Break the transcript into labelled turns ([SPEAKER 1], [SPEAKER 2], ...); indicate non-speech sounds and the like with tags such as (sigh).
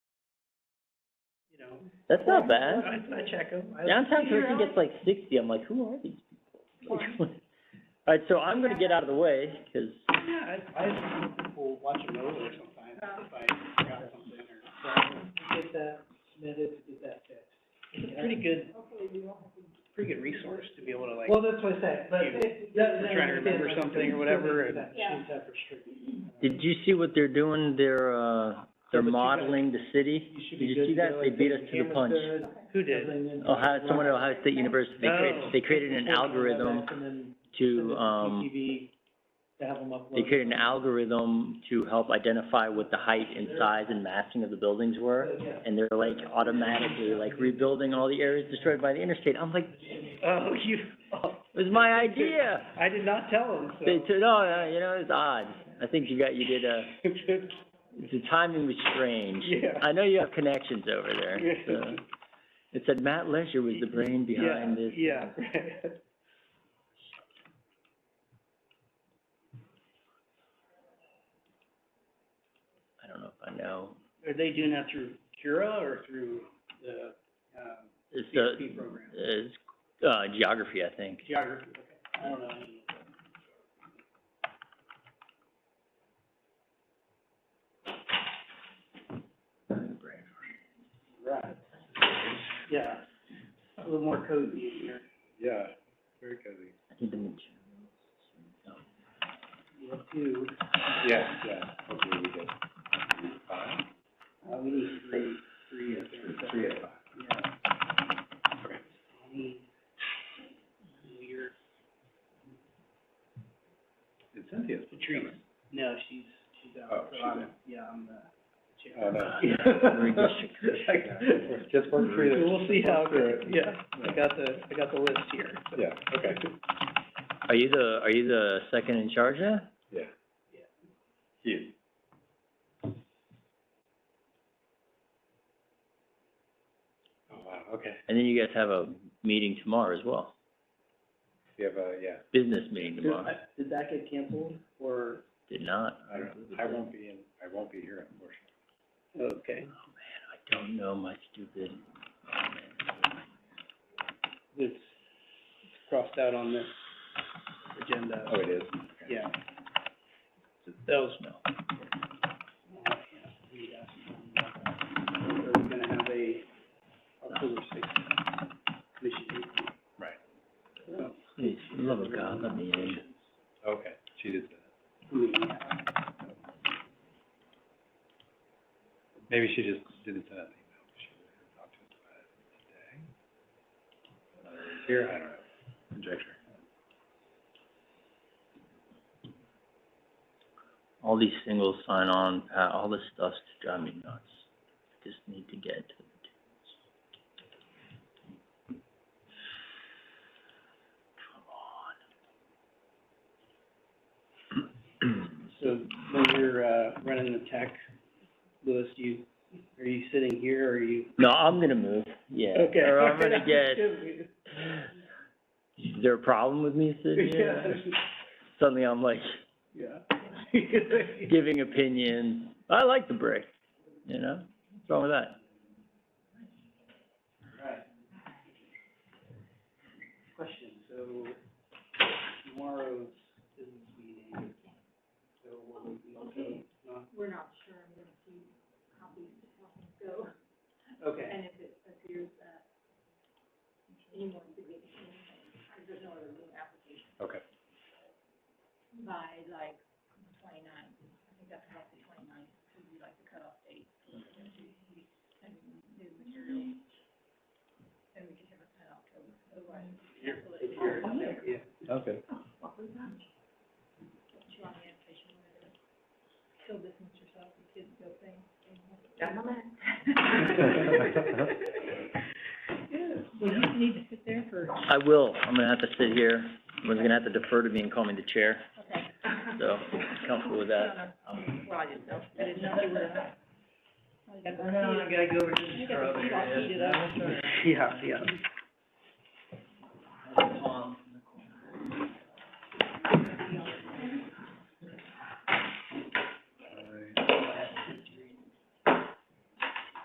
[SPEAKER 1] you know.
[SPEAKER 2] That's not bad.
[SPEAKER 1] I, I check them.
[SPEAKER 2] Downtown Thurston gets like sixty, I'm like, who are these people? (laughs) Alright, so I'm gonna get out of the way, 'cause
[SPEAKER 1] Yeah, I, I have people watching over sometimes, if I forgot something or. Get that submitted, get that fixed. It's a pretty good, pretty good resource to be able to like,
[SPEAKER 3] Well, that's what I said, but
[SPEAKER 1] You-
[SPEAKER 3] it,
[SPEAKER 1] if
[SPEAKER 3] that,
[SPEAKER 1] you're trying to remember something or whatever, and.
[SPEAKER 3] Yeah.
[SPEAKER 2] did you see what they're doing? They're, uh, they're
[SPEAKER 1] but you gotta-
[SPEAKER 2] modeling the city?
[SPEAKER 1] You should be
[SPEAKER 2] Did
[SPEAKER 1] good
[SPEAKER 2] you see
[SPEAKER 1] to go,
[SPEAKER 2] that? They
[SPEAKER 1] like,
[SPEAKER 2] beat
[SPEAKER 1] put
[SPEAKER 2] us to the
[SPEAKER 1] cameras
[SPEAKER 2] punch.
[SPEAKER 1] there, Who did?
[SPEAKER 2] Ohio, someone at Ohio State University, they
[SPEAKER 1] Oh.
[SPEAKER 2] created, they created an algorithm
[SPEAKER 3] And then send it
[SPEAKER 2] to,
[SPEAKER 3] to
[SPEAKER 2] um,
[SPEAKER 3] CTV to have them upload.
[SPEAKER 2] they created an algorithm to help identify what the height and size and massing of the buildings were. And they're like automatically like rebuilding all the areas destroyed by the interstate. I'm like,
[SPEAKER 1] Oh, (laughs) you, oh,
[SPEAKER 2] it was my idea.
[SPEAKER 1] I did not tell him, so.
[SPEAKER 2] They took, no, no, you know, it's odd. I think you got, you did a, the timing was strange.
[SPEAKER 1] (laughs) Yeah.
[SPEAKER 2] I know you have connections over there, so. It said Matt Lesher was the brain behind
[SPEAKER 1] Yeah,
[SPEAKER 2] this.
[SPEAKER 1] Yeah, right. (laughs)
[SPEAKER 2] I don't know if I know.
[SPEAKER 1] Are they doing that through Cura or through the, um,
[SPEAKER 2] It's the,
[SPEAKER 1] CSP program?
[SPEAKER 2] it's, uh, geography, I think.
[SPEAKER 1] Geography, okay. I don't know. any- Right. Yeah, a little more cozy in here.
[SPEAKER 4] Yeah, very cozy.
[SPEAKER 2] I think the mid-
[SPEAKER 1] You have two,
[SPEAKER 4] Yeah, yeah, hopefully we get five,
[SPEAKER 1] uh, we need three, three up there. so-
[SPEAKER 4] three out of five.
[SPEAKER 1] Yeah. Any Weird,
[SPEAKER 4] And Cynthia's
[SPEAKER 1] Patrice, no, she's, she's Uh, out.
[SPEAKER 4] Oh,
[SPEAKER 1] so
[SPEAKER 4] she's
[SPEAKER 1] I'm-
[SPEAKER 4] out.
[SPEAKER 1] Yeah, I'm the chair.
[SPEAKER 4] Oh,
[SPEAKER 1] (laughs)
[SPEAKER 4] no. (laughs)
[SPEAKER 1] Redistrict.
[SPEAKER 4] Just work through
[SPEAKER 1] So
[SPEAKER 4] this.
[SPEAKER 1] we'll see how,
[SPEAKER 4] Work
[SPEAKER 1] it
[SPEAKER 4] through
[SPEAKER 1] goes.
[SPEAKER 4] it.
[SPEAKER 1] yeah, I got the, I got the list here. so.
[SPEAKER 4] Yeah, okay,
[SPEAKER 2] Are you the, are you the second in charge now?
[SPEAKER 4] yeah. Cute. Oh, wow, okay.
[SPEAKER 2] And then you guys have a meeting tomorrow as well,
[SPEAKER 4] We have a, yeah,
[SPEAKER 2] business meeting tomorrow.
[SPEAKER 1] Did- Did that get canceled or?
[SPEAKER 2] Did not.
[SPEAKER 4] I don't, I won't be in, I won't be here unfortunately.
[SPEAKER 1] Okay.
[SPEAKER 2] I don't know my stupid,
[SPEAKER 1] It's crossed out on this agenda.
[SPEAKER 4] Oh, it is?
[SPEAKER 1] Yeah. Those, no. We're gonna have a October sixth commission meeting.
[SPEAKER 4] Right.
[SPEAKER 1] So,
[SPEAKER 2] please, for the love of God, let me in.
[SPEAKER 4] Okay, she did that.
[SPEAKER 1] I mean, yeah.
[SPEAKER 4] Maybe she just didn't send out the email. She didn't talk to us about it today. Uh, Here, I don't know, conjecture.
[SPEAKER 2] All these singles sign on, pa- all this stuff's driving me nuts. Just need to get to the
[SPEAKER 1] So when you're, uh, running the tech, Louis, you, are you sitting here or are you?
[SPEAKER 2] (clears throat) No, I'm gonna move, yeah.
[SPEAKER 1] Okay.
[SPEAKER 2] Or I'm gonna
[SPEAKER 1] (laughs)
[SPEAKER 2] get, is there a problem with me sitting
[SPEAKER 1] Yeah,
[SPEAKER 2] here? Suddenly I'm like
[SPEAKER 1] (laughs) yeah.
[SPEAKER 2] giving opinions. I like the break, you know? What's wrong with that?
[SPEAKER 1] Right. Question, so tomorrow's business meeting, so what would be, so, not? We're not sure, I'm
[SPEAKER 4] Okay.
[SPEAKER 1] gonna see copies to help us go. Okay. Yeah,
[SPEAKER 4] Okay. (laughs)
[SPEAKER 2] I will, I'm gonna have to sit here. We're gonna have to defer to me and call me the chair. Okay. So, comfortable with that.
[SPEAKER 1] (laughs) yeah, yeah.